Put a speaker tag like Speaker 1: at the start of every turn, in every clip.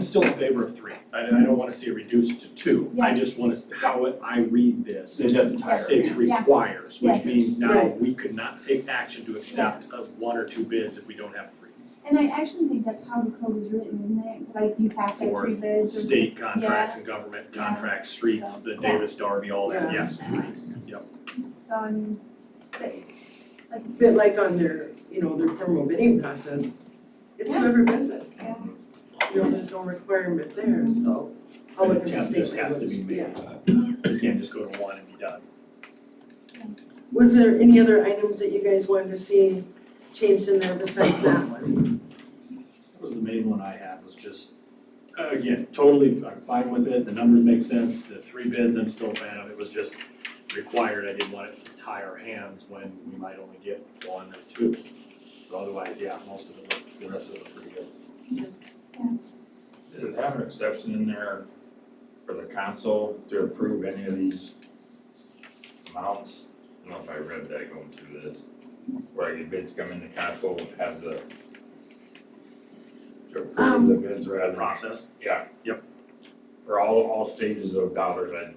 Speaker 1: still in favor of three, I, I don't wanna see it reduced to two, I
Speaker 2: Yeah.
Speaker 1: just wanna, s- how it- I read this.
Speaker 3: It doesn't
Speaker 1: the
Speaker 3: tire.
Speaker 1: States
Speaker 2: Yeah.
Speaker 1: requires, which
Speaker 2: Yes.
Speaker 1: means now we could not take action to accept of one or two bids if we don't have three.
Speaker 2: And I actually think that's how the code is written, isn't it? Like you have to
Speaker 1: Or
Speaker 2: three bids or.
Speaker 1: State contracts and government
Speaker 2: Yeah.
Speaker 1: contracts, streets, the
Speaker 2: Yeah.
Speaker 1: Davis Darby, all that,
Speaker 4: Yeah.
Speaker 1: yes, three, yep,
Speaker 2: So I mean, but like,
Speaker 4: But like on their, you know, their formal bidding process, it's
Speaker 2: Yeah.
Speaker 4: whoever bids it,
Speaker 2: yeah,
Speaker 4: you know, there's no requirement there, so. I'll
Speaker 1: an
Speaker 4: look at the
Speaker 1: attempt
Speaker 4: state
Speaker 1: just has to be
Speaker 4: language,
Speaker 1: made, uh,
Speaker 4: yeah.
Speaker 1: you can't just go to one and be done.
Speaker 4: Was there any other items that you guys wanted to see changed in there besides that one?
Speaker 1: That was the main one I had, was just, uh, again, totally, I'm fine with it, the numbers make sense, the three bids, I'm still a fan of, it was just required, I didn't want it to tie our hands when we might only get one or two. So otherwise, yeah, most of it, looked- the rest of it looked pretty good.
Speaker 3: Does it have an exception in there for the council to approve any of these amounts? I don't know if I read that going through this, where your bids come in, the council has the to approve
Speaker 4: Um,
Speaker 3: the bids rather than,
Speaker 1: Process,
Speaker 3: yeah.
Speaker 1: Yep.
Speaker 3: For all, all stages of dollars, I,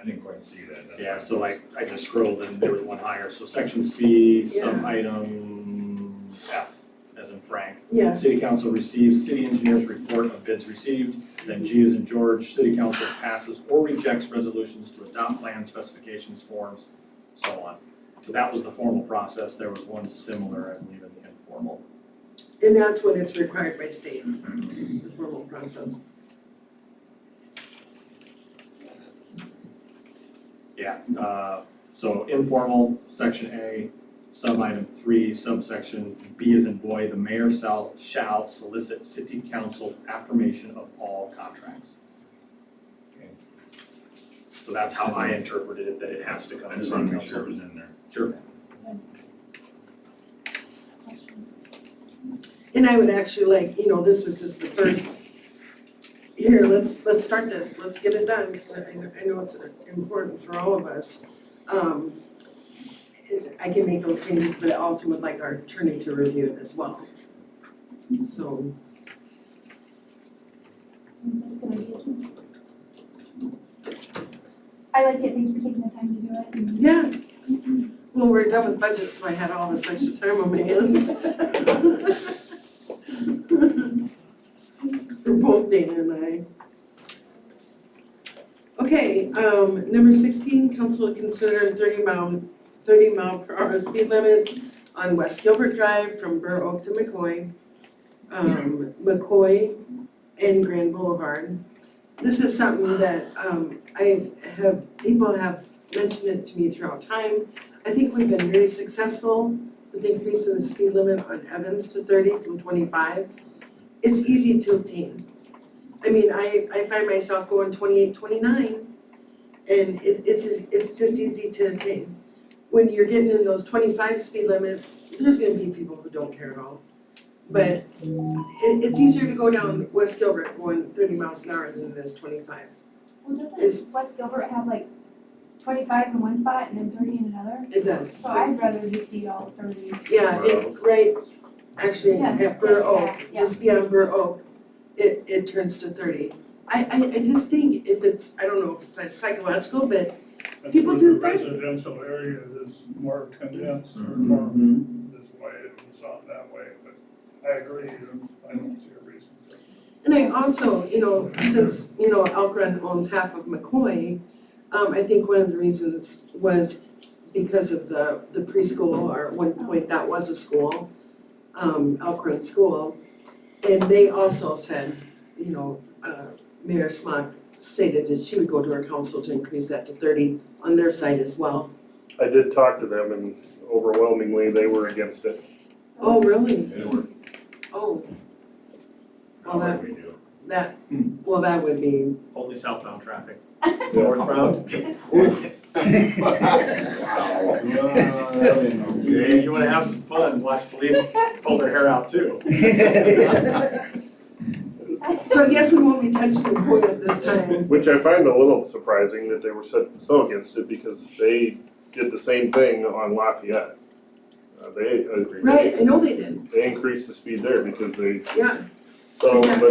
Speaker 3: I didn't quite see that. that's why.
Speaker 1: yeah, so I, I just scrolled and there was one higher, so section C, sub item F, as in Frank.
Speaker 4: Yeah,
Speaker 1: City Council receives city engineer's report of bids received. Then G is in George, City Council passes or rejects resolutions to adopt plan specifications, forms, so on. So that was the formal process. There was one similar, I believe, in the informal.
Speaker 4: and that's when it's required by state, the formal process.
Speaker 1: Yeah, uh, so informal, section A, sub item three, subsection B is in boy, the mayor shall, shall solicit city council affirmation of all contracts.
Speaker 3: Okay.
Speaker 1: So that's how I interpreted it, that it has to come
Speaker 3: I
Speaker 1: from
Speaker 3: just
Speaker 1: council.
Speaker 3: wanna make sure it was in there.
Speaker 1: Sure.
Speaker 2: question.
Speaker 4: And I would actually like, you know, this was just the first, here, let's, let's start this, let's get it done, cause I, I know it's important for all of us. Um, I can make those changes, but I also would like our attorney to review it as well. So,
Speaker 2: That's a good idea. I like it, thanks for taking the time to do it and-
Speaker 4: yeah, well, we're done with budget, so I had all this extra time on my hands. For both Dana and I. Okay, um, number sixteen, council to consider thirty mile, thirty mile per hour speed limits on West Gilbert Drive from Burr Oak to McCoy. Um, McCoy and Grand Boulevard. This is something that, um, I have, people have mentioned it to me throughout time. I think we've been very successful with increasing the speed limit on Evans to thirty from twenty-five. It's easy to obtain. I mean, I I find myself going 28, 29, and it's it's just- it's just easy to obtain. When you're getting in those twenty-five speed limits, there's gonna be people who don't care at all. But it it's easier to go down West Gilbert going thirty miles an hour than it is twenty-five.
Speaker 2: Well, doesn't
Speaker 4: Is-
Speaker 2: West Gilbert have like twenty-five in one spot and then thirty in another?
Speaker 4: It does.
Speaker 2: So I'd rather just see all thirty.
Speaker 4: Yeah,
Speaker 1: Burr
Speaker 4: it, right, actually,
Speaker 2: Yeah.
Speaker 4: at Burr Oak,
Speaker 2: Yeah, yeah.
Speaker 4: just beyond Burr Oak, it, it turns to thirty. I, I, I just think if it's, I don't know if it's like psychological, but
Speaker 5: That's
Speaker 4: People
Speaker 5: where
Speaker 4: do
Speaker 5: the
Speaker 4: that.
Speaker 5: Residential area is more condensed or
Speaker 1: Mm-hmm.
Speaker 5: more this way, it was on that way, but I agree, I don't see a reason for it.
Speaker 4: and I also, you know, since, you know, Elk Run owns half of McCoy, um, I think one of the reasons was because of the, the preschool, or at one point that was a school, um, Elk Run School. And they also said, you know, uh, Mayor Smock stated that she would go to her council to increase that to thirty on their side as well.
Speaker 6: I did talk to them and overwhelmingly they were against it.
Speaker 4: Oh, really?
Speaker 3: It worked,
Speaker 4: Oh, Well,
Speaker 3: however
Speaker 4: that-
Speaker 3: we do.
Speaker 4: that, well, that would be,
Speaker 1: Only southbound traffic.
Speaker 6: Northbound?
Speaker 1: Yeah, you wanna have some fun, watch police pull their hair out too.
Speaker 4: so I guess we won't be touching McCoy at this time.
Speaker 6: Which I find a little surprising that they were so, so against it because they did the same thing on Lafayette. Uh, they agreed.
Speaker 4: Right, I know they did,
Speaker 6: They increased the speed there because they,
Speaker 4: yeah.
Speaker 6: so,
Speaker 4: Yeah.
Speaker 6: but